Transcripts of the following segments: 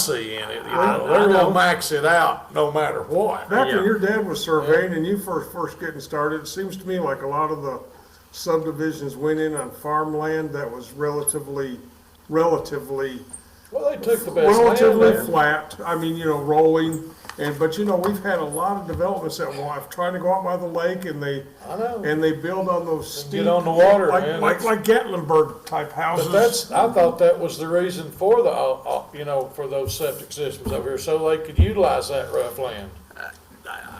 see in it, you I- know, I they're know. gonna max it out no matter what. Back Yeah. when your dad was surveying and you first, first getting started, it seems to me like a lot of the subdivisions went in on farmland that was relatively, relatively, Well, they took the best land relatively there. flat. I mean, you know, rolling, and, but you know, we've had a lot of developments that will, I've tried to go out by the lake and they, I know, and they build on those steep. Get on the water, like- man. Like, like Gatlinburg type houses. but that's, I thought that was the reason for the, uh, uh, you know, for those septic systems over here, so they could utilize that rough land.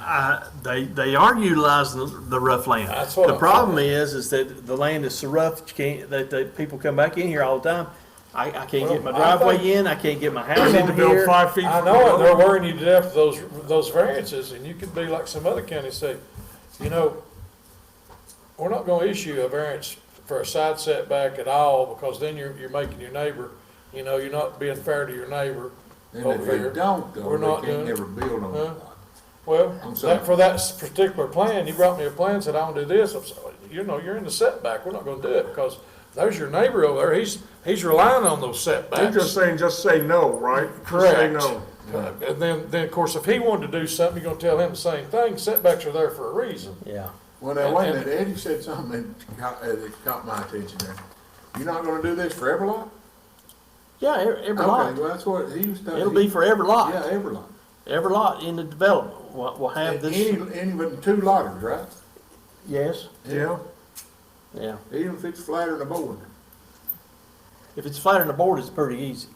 I, they, they are utilizing the- the rough land. That's what The I'm problem is, is that the land is so rough, you can't, that, that people come back in here all the time. I, I can't get my Well, I think- driveway in, I can't get my They house Need to in build here. five feet. I know, and they're worrying you to death for those, those variances, and you could be like some other counties say, you know, we're not gonna issue a variance for a side setback at all, because then you're, you're making your neighbor, you know, you're not being fair to your neighbor And if over they here. don't, We're though, not they can't doing it. never build on Huh? it. Well, I'm sorry. that, for that s- particular plan, you brought me a plan, said, I wanna do this, I'm sorry, you know, you're in the setback, we're not gonna do it, because there's your neighbor over there, he's, he's relying on those setbacks. They're just saying, just say no, right? Just say Correct. no. Uh, And then, then of course, if he wanted to do something, you're gonna tell him the same thing. Setbacks are there for a reason. Yeah. Well, now, wait a minute, Eddie said something that caught, uh, that caught my attention there. You're not gonna do this for every lot? Yeah, every, every Okay, lot. well, that's what he was talking. It'll be for every Yeah, lot. every lot. Every lot in the development will, will have Any, this, any, but two lotters, right? yes, Yeah, yeah. Even if it's flatter than a board. If it's flat on the board, it's pretty easy.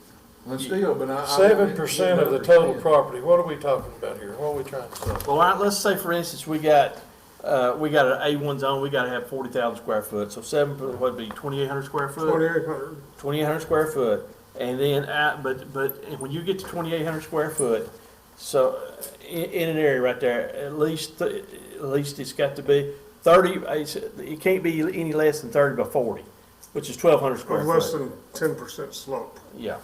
Well, still, but I- I. Seven percent of the total problem. property. What are we talking about here? What are we trying to say? Well, I, let's say for instance, we got, uh, we got an A one zone, we gotta have forty thousand square foot, so seven, per- what'd be, twenty-eight hundred square foot? twenty-eight hundred. Twenty-eight hundred square foot, and then, uh, but, but and when you get to twenty-eight hundred square foot, so, uh, in, in an area right there, at least, th- at least it's got to be thirty, it's- it can't be any less than thirty by forty, which is twelve hundred square Of less foot. than ten percent slope, Yeah,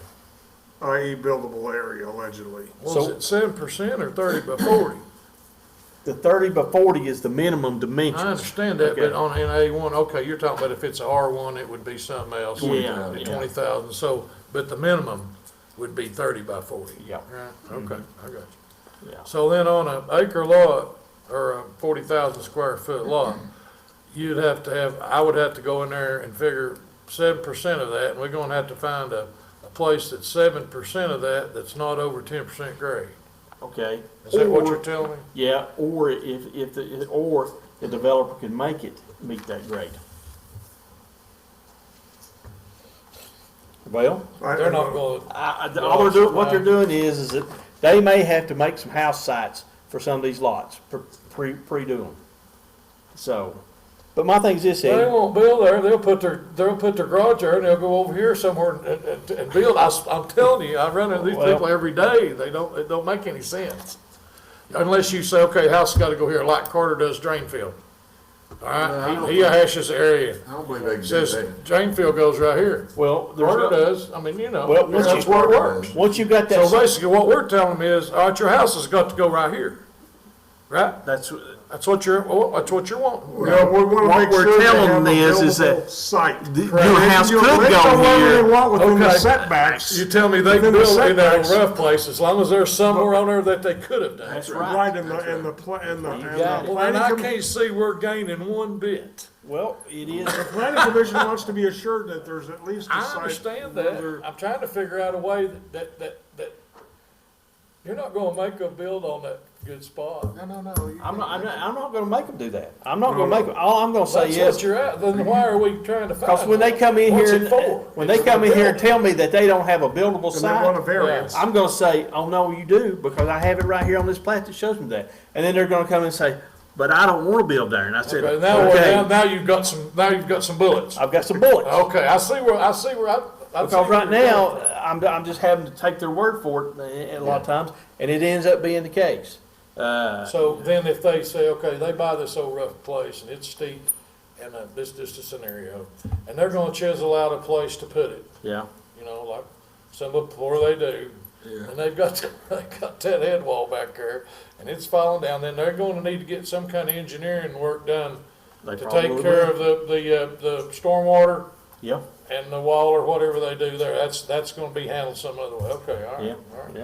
i.e. buildable area allegedly. Was So- it seven percent or thirty by forty? the thirty by forty is the minimum I dimension. understand that, but Okay. on in A one, okay, you're talking about if it's a R one, it would be something else. Yeah, yeah. Twenty thousand, so, but the minimum would be thirty by forty. Yeah. Right, okay, I got you. Yeah. So then on an acre lot, or a forty thousand square foot lot, you'd have to have, I would have to go in there and figure seven percent of that, and we're gonna have to find a, a place that's seven percent of that, that's not over ten percent grade. Okay. Is that what Or- you're telling me? Yeah, or if, if, the or the developer can make it meet that grade. Well, I- They're not gonna, I, I, all they're doing, what they're doing is, is that they may have to make some house sites for some of these lots, pre- pre, pre-do them. So, but my thing is this, they Eddie, won't build there, they'll put their, they'll put their garage there, and they'll go over here somewhere and, and, and build. I, am telling you, I run into these Well- people every day, they don't, it don't make any sense. Unless you say, okay, house gotta go here, like Carter does Drainfield. All No, I right, don't he he hashes the area. I don't believe they can do Says that. Drainfield goes right here. well, there's, Carter no- does, I mean, you know, Well, once that's you- where it works. once you've got So that, basically, what we're telling them is, all right, your house has got to go right here, right? that's, That's what you're, well, that's what you're wanting. No, we What wanna make we're sure they telling have a them is- is that buildable site. th- your house You- could they go don't want here. what they want within the Okay. setbacks. You tell me they can Within the build in that setbacks. rough place, as long as there's somewhere on there that they could have done. that's right. Right, in the, in the, pla- in the, in got the it. Well, and I planning, com- can't see we're gaining one bit. Well, it is, planning commission wants to be assured that there's at least a I site. understand where that. they're- I'm trying to figure out a way that, that, that, that you're not gonna make a build on that good spot. No, no, no. you I'm not, I'm can't. not, I'm not gonna make them do that. I'm not gonna make them, all I'm gonna say That's is. what you're at, then why are we trying to find? Because when they come in one? What's here, it for? and- when they It's come for in here and building. tell me that they don't have a buildable And they want a sign, variance. I'm gonna say, oh, no, you do, because I have it right here on this plat that shows me that. And then they're gonna come and say, but I don't wanna build there, and I said, Okay, now, we're- now, okay, now you've got some, now you've got some bullets. I've got some bullets. Okay, I see where, I see where I. I see Because where right you're now, going. I'm, I'm just having to take their word for it eh, a- a lot of times, and it ends up being the case. Uh, So then if they say, okay, they buy this old rough place and it's steep and uh, this, this, the scenario, and they're gonna chisel out a place to put it, yeah, you know, like some of before they do. Yeah. And they've got, they've got that head wall back there and it's falling down, then they're gonna need to get some kind of engineering work done They to probably take will. care of the, the, uh, the stormwater yeah, and the wall or whatever they do there. That's, that's gonna be handled some other way. Okay, all yeah, right, all right. yeah.